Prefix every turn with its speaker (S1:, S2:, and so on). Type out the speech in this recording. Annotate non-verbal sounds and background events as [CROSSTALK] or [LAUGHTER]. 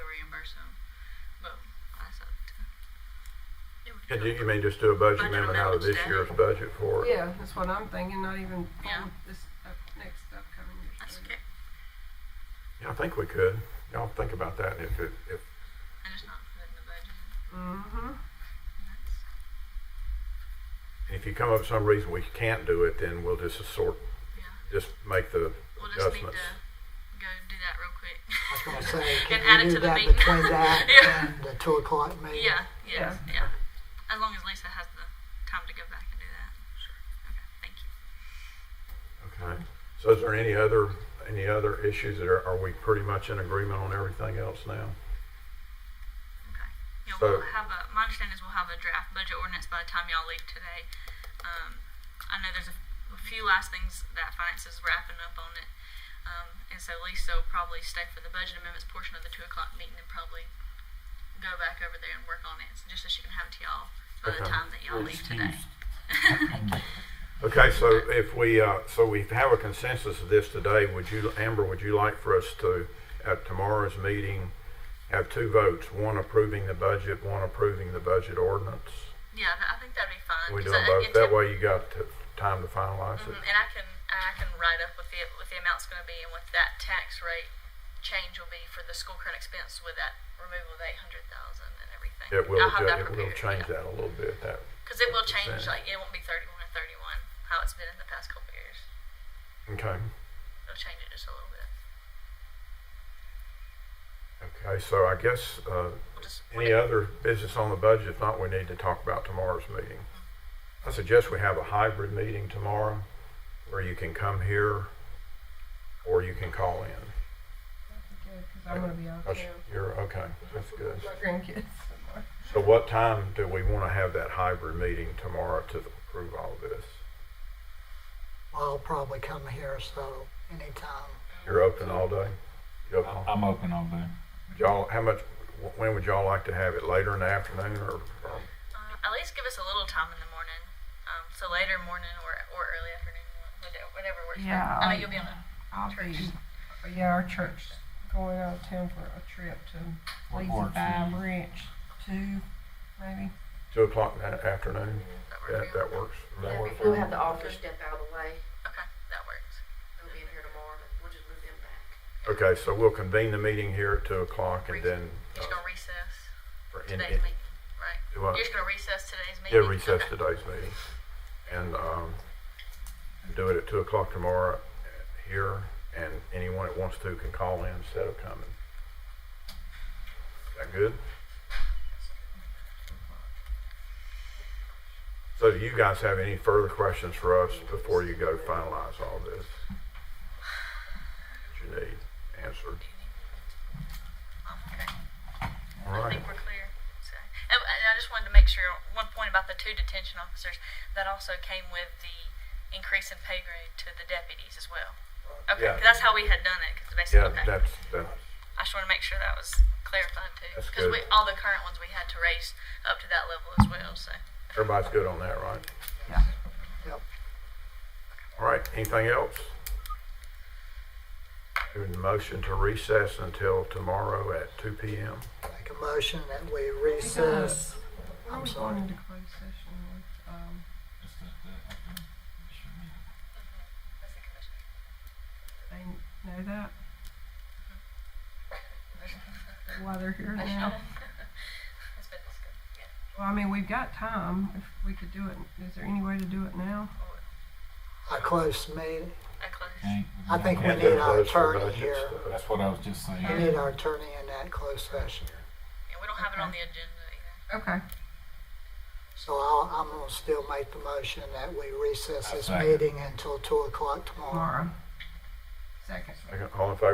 S1: uh,
S2: Can you, you mean just do a budget
S1: Budget
S2: amendment out of this
S1: amendments, yeah.
S2: year's budget for it?
S3: Yeah, that's what I'm thinking, not even
S1: Yeah.
S3: for this up, next upcoming
S1: That's
S3: year's. budget.
S1: good.
S2: Yeah, I think we could. Y'all think about that and if it, if,
S1: I just not put in the budget.
S3: Mhm.
S1: That's-
S2: if you come up with some reason we can't do it, then we'll just sort,
S1: Yeah.
S2: just make the
S1: We'll just need
S2: adjustments.
S1: to go do that real quick.
S4: I was gonna
S1: [LAUGHS]
S4: say,
S1: And
S4: can
S1: add
S4: we
S1: it
S4: do
S1: to the
S4: that
S1: meeting. [LAUGHS]
S4: between that
S1: Yeah.
S4: and the two o'clock meeting?
S1: Yeah, yeah,
S3: Yeah.
S1: yeah. As long as Lisa has the time to go back and do that. Sure. Okay, thank you.
S2: Okay. So is there any other, any other issues that are, are we pretty much in agreement on everything else now?
S1: Okay. Yeah,
S2: So-
S1: we'll have a, my understanding is we'll have a draft budget ordinance by the time y'all leave today. Um, I know there's a, a few last things that finance is wrapping up on it. Um, and so Lisa will probably stay for the budget amendments portion of the two o'clock meeting and probably go back over there and work on it, so just so she can have it to y'all by the
S2: Okay.
S1: time that y'all leave today.
S2: Okay, so if we, uh, so we have a consensus of this today, would you, Amber, would you like for us to, at tomorrow's meeting, have two votes, one approving the budget, one approving the budget ordinance?
S1: Yeah, that, I think that'd be fine.
S2: We do
S1: 'cause
S2: them
S1: I-
S2: both,
S1: it
S2: that
S1: took-
S2: way you got t- time to finalize it.
S1: Mhm, And I can and I can write up what the what the amount's going to be and what that tax rate change will be for the school current expense with that removal of eight hundred thousand and everything.
S2: It will,
S1: I'll have
S2: adju-
S1: that
S2: it will
S1: prepared.
S2: change that a little bit, that,
S1: because it will change.
S2: percent.
S1: Like it won't be thirty one or thirty one how it's been in the past couple years.
S2: okay.
S1: It'll change it just a little bit.
S2: Okay, so I guess, uh,
S1: We'll just
S2: any other business on the budget, if not, we need to talk about tomorrow's meeting. I suggest we have a hybrid meeting tomorrow, where you can come here, or you can call in.
S3: That'd be good, Cause I'm gonna be out
S2: That's-
S3: there
S2: You're, okay, that's good.
S3: with my grandkids. somewhere.
S2: So what time do we want to have that hybrid meeting tomorrow to approve all this?
S4: I'll probably come here, so anytime.
S2: You're open all day? You open all-
S5: I'm open all day.
S2: Would Y'all, how much, when would y'all like to have it, later in the afternoon or, or
S1: uh, at least give us a little time in the morning. Um, so later morning or or early afternoon, whatever, whatever works. for you.
S3: Yeah,
S1: I know
S3: I-
S1: you'll be on a
S3: I'll be,
S1: Church.
S3: yeah, our church going out of town for a trip to
S5: What
S3: Lazy
S5: works for
S3: Five
S5: you?
S3: Ranch, two, maybe.
S2: two o'clock in the afternoon?
S1: that work
S2: That,
S1: for you?
S2: that works.
S5: That work
S6: We'll
S5: for you?
S6: have the officers step out of the way.
S1: Okay, that works.
S6: They'll be in here tomorrow, but we'll just move them back.
S2: Okay, so we'll convene the meeting here at two o'clock and then. uh,
S1: You're just gonna recess
S2: for- in-
S1: today's
S2: in-
S1: meeting, right?
S2: do what?
S1: You're just gonna recess today's
S2: Yeah,
S1: meeting?
S2: recess
S1: Okay.
S2: today's meeting. And, um, do it at two o'clock tomorrow here, and anyone that wants to can call in instead of coming. Is that good? So do you guys have any further questions for us before you go finalize all this? That you need answered.
S1: Um, okay. I
S2: All right.
S1: think we're clear. So- And, and I just wanted to make sure, one point about the two detention officers, that also came with the increase in pay grade to the deputies as well. Okay,
S2: Yeah.
S1: 'cause that's how we had done it, 'cause
S2: Yeah,
S1: basically, okay.
S2: that's, that's,
S1: I just wanna make sure that was clarified too.
S2: That's
S1: Because we,
S2: good.
S1: all the current ones we had to raise up to that level as well, so.
S2: everybody's good on that, right?
S4: Yep.
S2: All right, anything else? Doing motion to recess until tomorrow at two P M.
S4: Make a motion that we recess.
S3: We're
S4: I'm
S3: going
S4: sorry.
S3: into closed session with, um, they know that. Why they're here now.
S1: [LAUGHS] That's been discussed, yeah.
S3: Well, I mean, we've got time, if we could do it, is there any way to do it now?
S4: A close meeting.
S1: Oh, I close.
S5: Okay.
S4: I think we
S2: And
S4: need
S2: then
S4: our
S2: those for uh,
S4: attorney
S2: budget
S4: here.
S2: stuff.
S5: That's what I was just saying.
S4: We need our attorney in that closed session.
S1: And we don't have it on the
S3: Okay.
S1: agenda either.
S3: Okay.
S4: So I'll, I'm gonna still make the motion that we recess
S5: I
S4: this
S5: second.
S4: meeting until two o'clock tomorrow.
S3: Tomorrow. Second.
S2: All in favor?